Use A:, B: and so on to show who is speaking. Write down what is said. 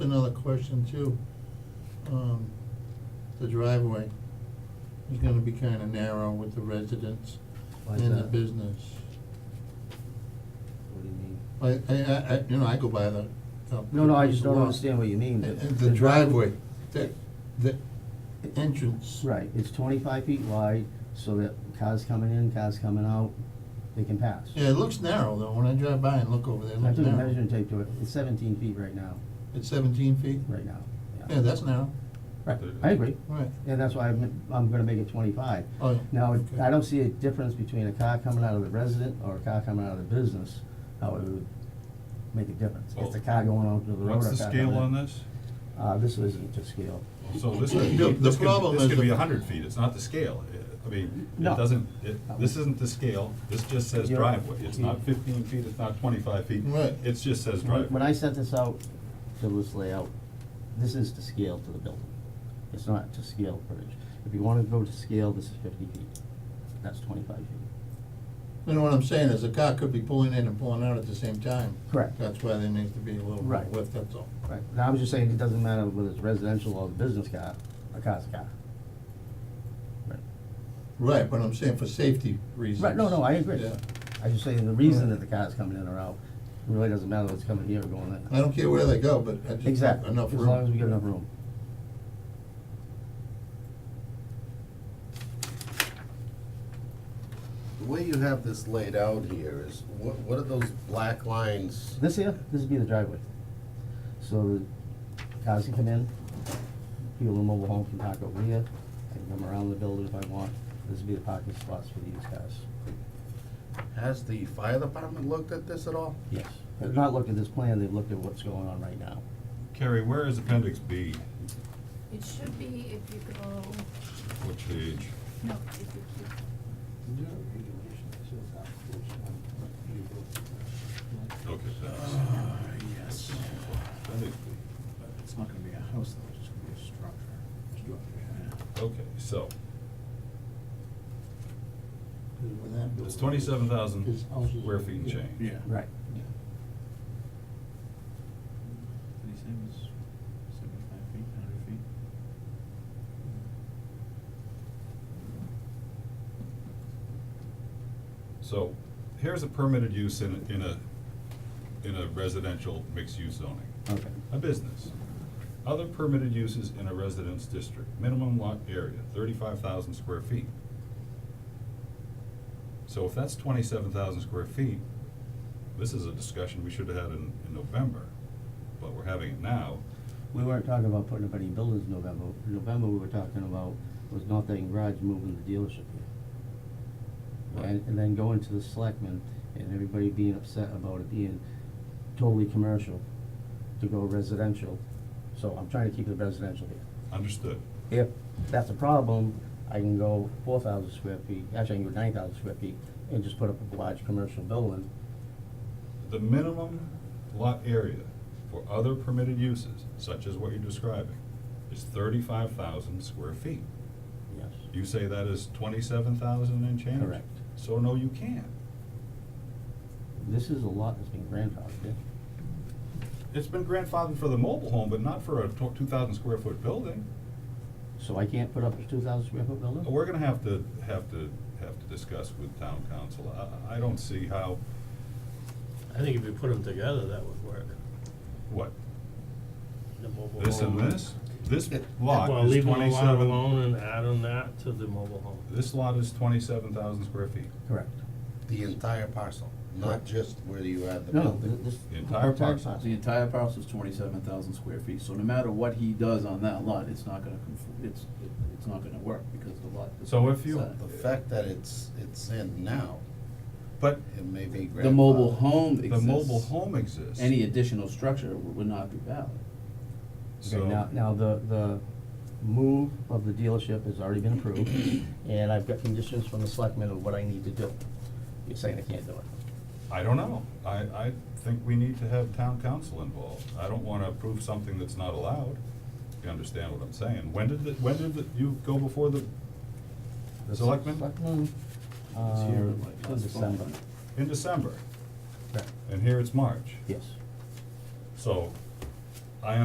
A: Another question too, um, the driveway is gonna be kinda narrow with the residents
B: Why is
A: and the
B: that?
A: business.
B: What do you mean?
A: I, I, I, I- you know, I go by the. the-
B: No, no, I just don't
A: the-
B: understand what you mean.
A: And- and The driveway, the, the entrance.
B: Right, it's twenty-five feet wide, so that cars coming in, cars coming out, they can pass.
A: Yeah, it looks narrow though, when I drive by and look over there, it
B: I
A: looks
B: took a
A: narrow.
B: measuring tape to it, it's seventeen feet right now,
A: It's seventeen feet?
B: right now, yeah.
A: Yeah, that's narrow,
B: Right, I agree,
A: right,
B: and that's why I'm, I'm gonna make it twenty-five.
A: oh, yeah.
B: Now,
A: okay.
B: I don't see a difference between a car coming out of the resident or a car coming out of the business, how it would make a difference. It's a car going onto the road or a
C: What's the
B: car
C: scale
B: coming in.
C: on this?
B: Uh, this isn't to scale.
C: So this could be,
A: No, the
C: this could,
A: problem
C: this
A: is
C: could
A: the-
C: be a hundred feet, it's not the scale, I- I mean,
B: No.
C: it doesn't, it, this isn't the scale, this just says
B: You're-
C: driveway, it's not fifteen feet, it's not twenty-five feet.
A: Right.
C: It just says
B: When- When
C: driveway.
B: I sent this out, to this layout, this is to scale to the building. It's not to scale footage. If you wanna go to scale, this is fifty feet. That's twenty-five feet.
A: You know what I'm saying, is a car could be pulling in and pulling out at the same time.
B: Correct.
A: That's why there needs to be a little bit
B: Right.
A: of width, that's all.
B: Right. Now, I'm just saying, it doesn't matter whether it's residential or the business car, a car's a car.
A: Right, but I'm saying for safety reasons.
B: Right, no, no, I agree.
A: Yeah.
B: I just saying, the reason that the car's coming in or out, it really doesn't matter whether it's coming here or going
A: I
B: there.
A: don't care where they go, but I just.
B: Exactly, as
A: Enough
B: long as we
A: room.
B: get enough room.
D: The way you have this laid out here is, what, what are those black lines?
B: This here, this would be the driveway. So the cars can come in, people in mobile home can park over here, I can come around the building if I want. This would be the parking spots for these cars.
D: Has the fire department looked at this at all?
B: Yes. They've not looked at this plan, they've looked at what's going on right now.
C: Carrie, where is appendix B,
E: It should be if you go,
C: which page?
E: no, if you keep,
C: Okay, thanks.
B: Ah,
F: yes.
C: Appendix B.
F: It's not gonna be a house though, it's just gonna be a structure.
C: Okay, so,
A: With that
C: it's
A: building.
C: twenty-seven thousand
A: His house is-
C: square feet and change.
F: Yeah.
B: Right.
F: Yeah. Did he say it was seventy-five feet, hundred feet?
C: So, here's a permitted use in, a- in a, in a residential mixed-use zoning.
B: Okay.
C: A business. Other permitted uses in a residence district, minimum lot area, thirty-five thousand square feet. So if that's twenty-seven thousand square feet, this is a discussion we should have had in, in November, but we're having it now.
B: We weren't talking about putting up any buildings in November. In November, we were talking about was North Dayton Garage moving the dealership here. And, and then going to the selectmen and everybody being upset about it being totally commercial to go residential. So I'm trying to keep it residential here.
C: Understood.
B: If that's a problem, I can go four thousand square feet, actually I can go nine thousand square feet and just put up a large commercial building.
C: The minimum lot area for other permitted uses, such as what you're describing, is thirty-five thousand square feet.
B: Yes.
C: You say that is twenty-seven thousand and change?
B: Correct.
C: So no, you can't.
B: This is a lot that's been grandfathered in.
C: It's been grandfathered for the mobile home, but not for a two thousand square foot building.
B: So I can't put up a two thousand square foot building?
C: We're gonna have to, have to, have to discuss with town council. I, I don't see how,
G: I think if you put them together, that would work.
C: what,
G: The mobile
C: this and
G: home.
C: this? This lot
G: Well,
C: is
G: leave them
C: twenty-seven.
G: alone and add on that to the mobile home.
C: This lot is twenty-seven thousand square feet.
B: Correct.
D: The entire parcel, not just where you had the
B: No,
D: building?
B: th- this.
C: The entire parcel.
F: The entire parcel is twenty-seven thousand square feet, so no matter what he does on that lot, it's not gonna conform, it's, it- it's not gonna work because the lot. is
C: So if you-
F: set.
D: The fact that it's, it's in now,
C: But
D: it may be grandfathered.
F: The mobile home
C: the mobile
F: exists,
C: home exists.
F: any additional structure w- would not be valid.
B: Okay, now,
C: So,
B: now the, the move of the dealership has already been approved, and I've got conditions from the selectmen of what I need to do. You're saying I can't do it.
C: I don't know. I, I think we need to have town council involved. I don't wanna approve something that's not allowed. You understand what I'm saying? When did, the- when did the- you go before the
B: The
C: Selectmen?
B: Selectmen,
F: It's here,
B: um,
F: like,
B: in
F: last fall.
B: December.
C: in December,
B: Right.
C: and here it's March.
B: Yes.
C: So